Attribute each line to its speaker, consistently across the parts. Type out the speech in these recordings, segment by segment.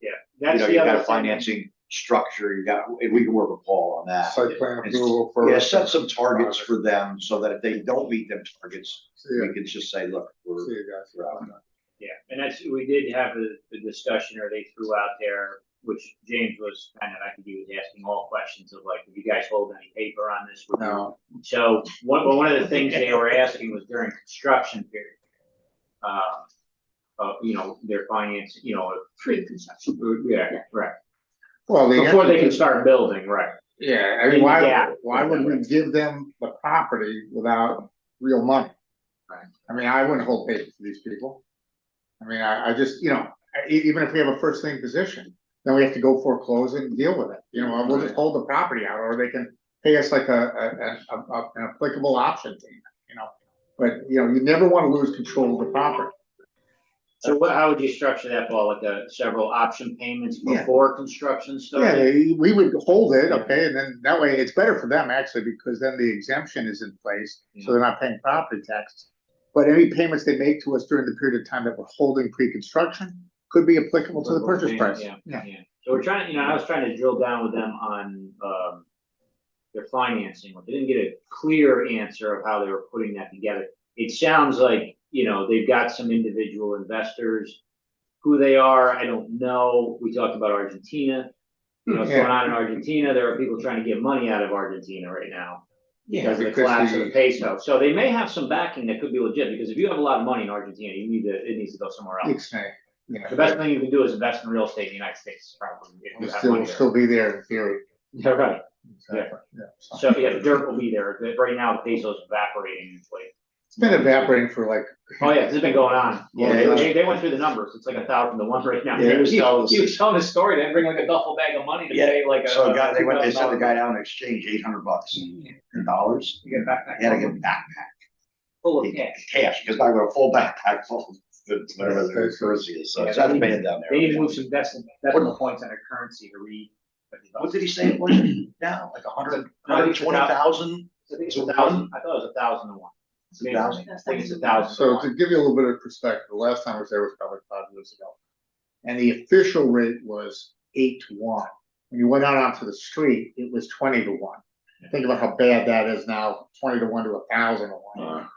Speaker 1: you
Speaker 2: That's
Speaker 1: know,
Speaker 2: the
Speaker 1: you got
Speaker 2: other
Speaker 1: a
Speaker 2: thing.
Speaker 1: financing structure, you got, if we can work with Paul on that.
Speaker 3: Site plan
Speaker 1: It's-
Speaker 3: approval first.
Speaker 1: Yeah, set some targets for them so that if they don't meet them targets,
Speaker 3: See
Speaker 1: we
Speaker 3: you,
Speaker 1: can just say, look, we're,
Speaker 3: see you guys.
Speaker 1: we're out. on that.
Speaker 2: Yeah, and that's, we did have a, a discussion or they threw out there, which James was kind of, I think he was asking all questions of like, do you guys hold any paper on this? Would you
Speaker 3: No,
Speaker 2: So one, well, one of the things they were asking was during construction period. Uh, of, you know, their finance, you know, pre-construction, yeah, right,
Speaker 3: well, they.
Speaker 2: before they can start building, right.
Speaker 3: Yeah, I mean,
Speaker 2: Yeah.
Speaker 3: why, why would we give them the property without real money?
Speaker 2: Right.
Speaker 3: I mean, I wouldn't hold paper for these people. I mean, I, I just, you know, e- even if we have a first thing position, then we have to go foreclose it and deal with it, you know, we'll just hold the property out, or they can pay us like a, a, a, a- an applicable option payment, you know? But, you know, you never wanna lose control of the property.
Speaker 2: So
Speaker 3: Uh,
Speaker 2: what, how would you structure that, Paul, like the several option payments
Speaker 3: Yeah.
Speaker 2: before construction
Speaker 3: Yeah,
Speaker 2: started?
Speaker 3: they- we would hold it, okay, and then that way it's better for them actually, because then the exemption is in place, so they're not paying property taxes. But any payments they make to us during the period of time that we're holding pre-construction could be applicable to the purchase price.
Speaker 2: Yeah,
Speaker 3: Yeah,
Speaker 2: yeah. So we're trying, you know, I was trying to drill down with them on, um, their financing. They didn't get a clear answer of how they were putting that together. It sounds like, you know, they've got some individual investors. Who they are, I don't know. We talked about Argentina. You know, what's going on in Argentina. There are people trying to get money out of Argentina right now because of the collapse of the peso. So they may have some backing that could be legit, because if you have a lot of money in Argentina, you need to, it needs to go somewhere else.
Speaker 3: It's, uh, yeah,
Speaker 2: The best thing you can do is invest in real estate in the United States, probably. if you
Speaker 3: It'll
Speaker 2: have
Speaker 3: still,
Speaker 2: money
Speaker 3: will
Speaker 2: there.
Speaker 3: still be there in theory.
Speaker 2: Yeah, right.
Speaker 3: Exactly, yeah, so.
Speaker 2: So, yeah, the dirt will be there, but right now the peso is evaporating usually.
Speaker 3: It's been evaporating for like.
Speaker 2: Oh, yeah, this has been going on.
Speaker 3: Yeah,
Speaker 2: They-
Speaker 3: yeah.
Speaker 2: They, they went through the numbers, it's like a thousand to one right now.
Speaker 3: Yeah,
Speaker 2: He was
Speaker 1: he-
Speaker 2: telling,
Speaker 1: he
Speaker 2: he was telling a story, they bring like a duffel bag of money to
Speaker 1: Yeah,
Speaker 2: pay like a.
Speaker 1: So a guy, they went, they sent the
Speaker 2: $2,000
Speaker 1: guy down to exchange eight hundred bucks in dollars.
Speaker 2: to get Mm-hmm. back that
Speaker 1: He had to get a backpack,
Speaker 2: Full of cash.
Speaker 1: cash, because I got a full backpack full of whatever the currency is. So it's not bad down
Speaker 2: They need to
Speaker 1: there.
Speaker 2: move some decimal, decimal points on their currency to read.
Speaker 1: What did he say it was now? Like a hundred, hundred twenty thousand?
Speaker 2: I think it's a thousand, I thought it was a thousand to one. Maybe- I
Speaker 1: Thousand.
Speaker 2: think it's a thousand to
Speaker 3: So
Speaker 2: one.
Speaker 3: to give you a little bit of perspective, the last time I was there was probably five years ago. And the official rate was eight to one. When you went out onto the street, it was twenty to one. Think about how bad that is now, twenty to one to a thousand to one.
Speaker 4: Uh-huh.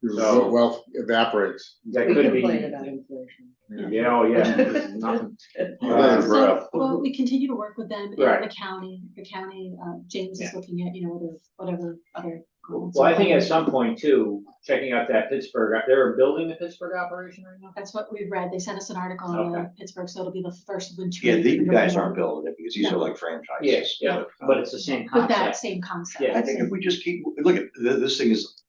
Speaker 3: Your
Speaker 2: So-
Speaker 3: wealth evaporates.
Speaker 2: That
Speaker 5: We
Speaker 2: could
Speaker 5: complain about
Speaker 2: be,
Speaker 5: inflation.
Speaker 2: yeah, oh, yeah, there's nothing.
Speaker 3: Yeah,
Speaker 2: Uh,
Speaker 3: bro.
Speaker 6: So, well, we continue to work with them
Speaker 2: Right.
Speaker 6: and the county, the county, uh, James is looking at, you know, whether, whatever other. grants
Speaker 2: Well, I
Speaker 6: are
Speaker 2: think at
Speaker 6: available.
Speaker 2: some point too, checking out that Pittsburgh, they're building the Pittsburgh operation right now?
Speaker 6: That's what we've read. They sent us an article on uh, Pittsburgh, so it'll be the first winter.
Speaker 1: Yeah,
Speaker 6: we've
Speaker 1: these
Speaker 6: been
Speaker 1: guys
Speaker 6: working
Speaker 1: aren't
Speaker 6: on
Speaker 1: building it because these are like franchises.
Speaker 2: Yeah, but it's the same
Speaker 6: With that
Speaker 2: concept.
Speaker 6: same concept.
Speaker 2: Yeah.
Speaker 1: I think if we just keep, look, at th- this thing is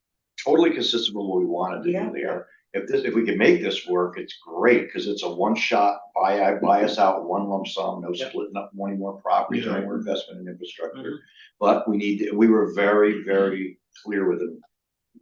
Speaker 1: totally consistent with what we wanted to do
Speaker 5: Yeah.
Speaker 1: there. If this, if we can make this work, it's great, because it's a one-shot, buy, I buy us out, one lump sum, no
Speaker 2: Yeah.
Speaker 1: splitting up one more properties, or any more investment in
Speaker 2: Mhm.
Speaker 1: infrastructure. But we need, to- we were very, very clear with them.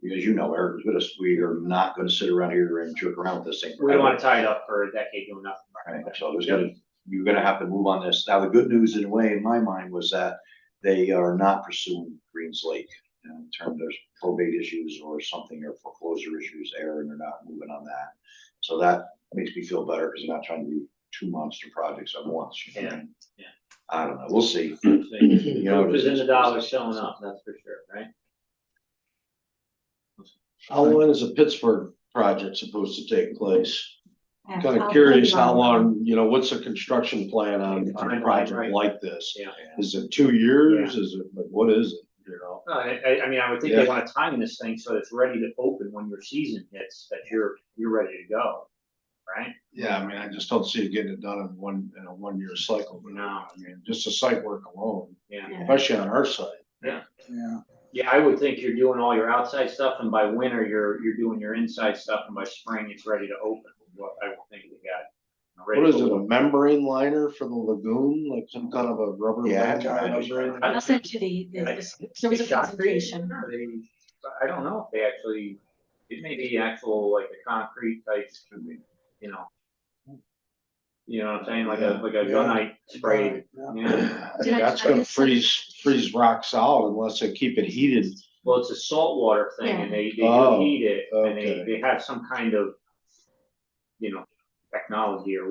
Speaker 1: As you know, Eric, with us, we are not gonna sit around here and joke around with this thing.
Speaker 2: We don't
Speaker 1: forever.
Speaker 2: wanna tie it up for a decade doing nothing.
Speaker 1: Right, so there's gonna, you're gonna have to move on this. Now, the good news in a way, in my mind, was that they are not pursuing Greens Lake. you know, In terms of probate issues or something or foreclosure issues there, and they're not moving on that. So that makes me feel better because they're not trying to do two monster projects at once. you know?
Speaker 2: Yeah, yeah.
Speaker 1: I don't know, we'll see.
Speaker 2: You
Speaker 1: know,
Speaker 2: Which is in the
Speaker 1: just-
Speaker 2: dollars showing up, that's for sure, right?
Speaker 4: How long is a Pittsburgh project supposed to take place?
Speaker 6: Yeah,
Speaker 4: Kind
Speaker 6: I'll
Speaker 4: of curious
Speaker 6: put it
Speaker 4: how
Speaker 6: on.
Speaker 4: long, you know, what's the construction plan on on
Speaker 2: Timeline,
Speaker 4: a project
Speaker 2: right.
Speaker 4: like this?
Speaker 2: Yeah.
Speaker 4: Is it two years? Is it, like, what is it, you know?
Speaker 2: No, I, I, I mean, I would think they
Speaker 4: Yeah.
Speaker 2: wanna time this thing so it's ready to open when your season hits, that you're, you're ready to go, right?
Speaker 4: Yeah, I mean, I just don't see it getting it done in one, in a one-year cycle.
Speaker 2: No.
Speaker 4: I mean, just the site work alone,
Speaker 2: Yeah.
Speaker 6: Yeah.
Speaker 4: especially on our site.
Speaker 3: Yeah.
Speaker 2: Yeah, I would think you're doing all your outside stuff and by winter, you're, you're doing your inside stuff and by spring, it's ready to open. What I would think they got.
Speaker 4: What is it, a membrane liner for the lagoon, like some kind of a rubber?
Speaker 1: Yeah,
Speaker 4: band
Speaker 1: I know.
Speaker 4: membrane?
Speaker 6: I'll send you the, the, the- there was a presentation.
Speaker 2: I don't know if they actually, it may be actual like a concrete type, you know. You know what I'm saying, like a, like a
Speaker 4: Yeah.
Speaker 2: gunite spray, yeah.
Speaker 6: Did I-
Speaker 4: That's
Speaker 6: I
Speaker 4: gonna
Speaker 6: just sent-
Speaker 4: freeze, freeze rock solid unless they keep it heated
Speaker 2: Well, it's a saltwater thing and they, they do
Speaker 4: Oh,
Speaker 2: heat it and they,
Speaker 4: okay.
Speaker 2: they have some kind of, you know, technology or